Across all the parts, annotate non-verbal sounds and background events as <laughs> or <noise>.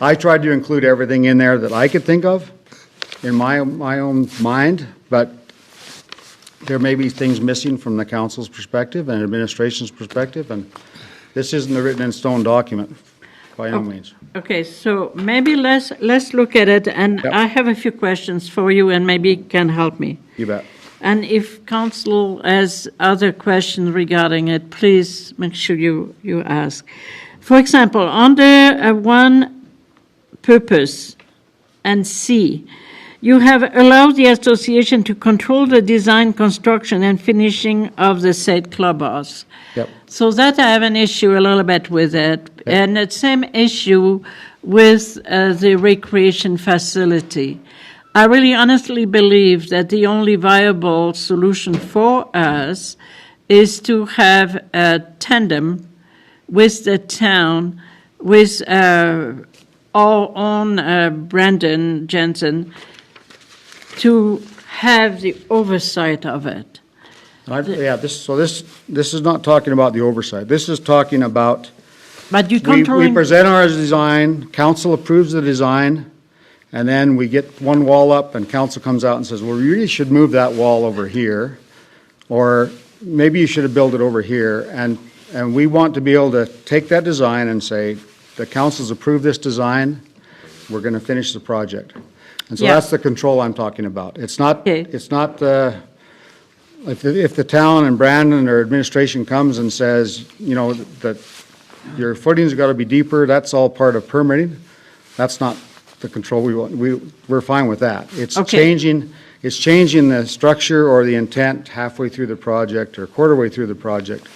I tried to include everything in there that I could think of in my, my own mind, but there may be things missing from the council's perspective and administration's perspective, and this isn't a written-in-stone document, by no means. Okay, so maybe let's, let's look at it, and Yep. I have a few questions for you, and maybe you can help me. You bet. And if council has other questions regarding it, please make sure you, you ask. For example, under uh, one purpose and C, you have allowed the association to control the design, construction, and finishing of the said clubhouse. Yep. So that I have an issue a little bit with it, and the same issue with uh, the recreation facility. I really honestly believe that the only viable solution for us is to have a tandem with the town, with uh, our own uh, Brandon Jensen, to have the oversight of it. I- Yeah, this, so this, this is not talking about the oversight. This is talking about But you We, we controlling, present our design, council approves the design, and then we get one wall up, and council comes out and says, well, you really should move that wall over here, or maybe you should have built it over here, and, and we want to be able to take that design and say, the council's approved this design, we're gonna finish the project. And so Yeah. that's the control I'm talking about. It's not, Okay. it's not the, if, the- if the town and Brandon or administration comes and says, you know, that your footing's got to be deeper, that's all part of permitting. That's not the control we want, we, we're fine with that. It's Okay. changing, it's changing the structure or the intent halfway through the project or quarter way through the project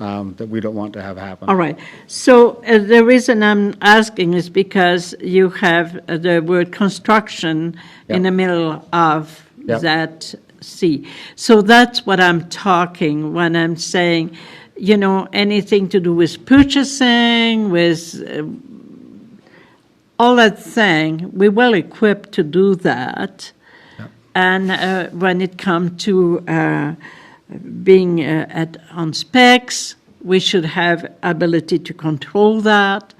um, that we don't want to have happen. all right. So uh, the reason I'm asking is because you have uh, the word construction in Yeah. the middle of Yeah. that C. So that's what I'm talking when I'm saying, you know, anything to do with purchasing, with uh, all that thing, we well equipped to do that. And uh, when it comes to uh, being uh, at, on specs, we should have ability to control that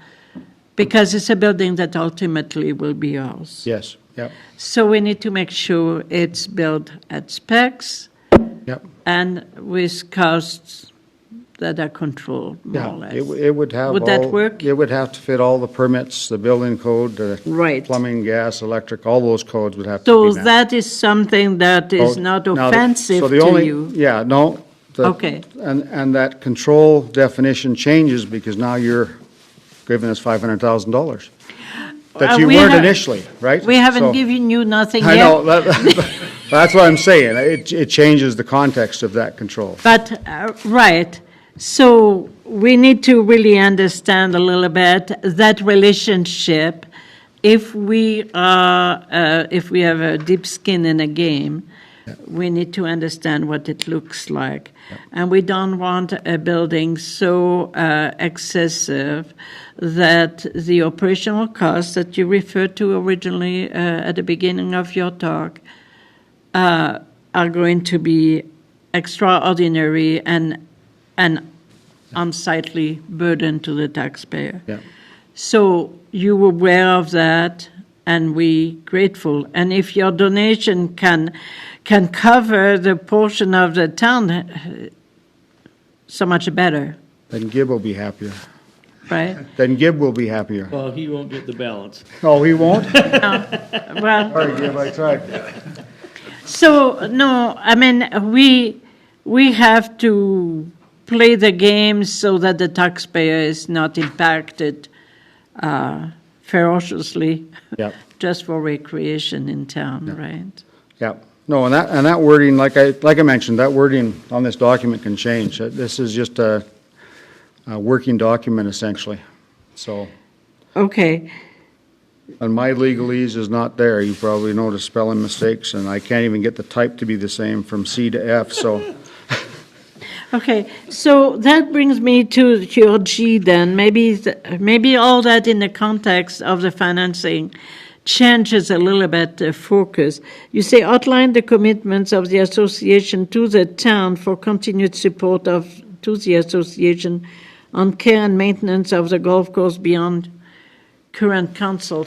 because it's a building that ultimately will be ours. Yes, yep, So we need to make sure it's built at specs yep. and with costs that are controlled, more Yeah, or less. It, w- it would have Would that all- work? It would have to fit all the permits, the building code, the Right. plumbing, gas, electric, all those codes would have to So be met. that is something that is So not Oh, now the- offensive so the to only- you. Yeah, no. the- Okay. And, and that control definition changes because now you're giving us $500,000 that Uh, you we weren't have- initially, right? We haven't So- given you <laughs> nothing I yet, know, <laughs> that- that's what I'm saying. It, it changes the context of that control. but, uh, right, so we need to really understand a little bit that relationship. If we are, uh, if we have a deep skin in a game, we need to understand what it looks like. And we don't want a building so uh, excessive that the operational costs that you referred to originally uh, at the beginning of your talk uh, are going to be extraordinary and an unsightly burden to the taxpayer. Yeah. So you were aware of that, and we grateful. And if your donation can can cover the portion of the town, eh, so much better, Then Gib will be happier. right? Then Gib will be happier. Well, he won't get the balance. Oh, he won't? Well, Sorry, Gib, I tried. So, no, I mean, we, we have to play the game so that the taxpayer is not impacted uh, ferociously Yep. <laughs> just for recreation in town, right? Yeah, no, and that, and that wording, like I, like I mentioned, that wording on this document can change. Uh, This is just a, a working document essentially. So, Okay, and my legalese is not there. You probably noticed spelling mistakes and I can't even get the type to be the same from C to F, so. okay, so that brings me to your G then, maybe, th- maybe all that in the context of the financing changes a little bit the focus. You say outline the commitments of the association to the town for continued support of, to the association on care and maintenance of the golf course beyond current council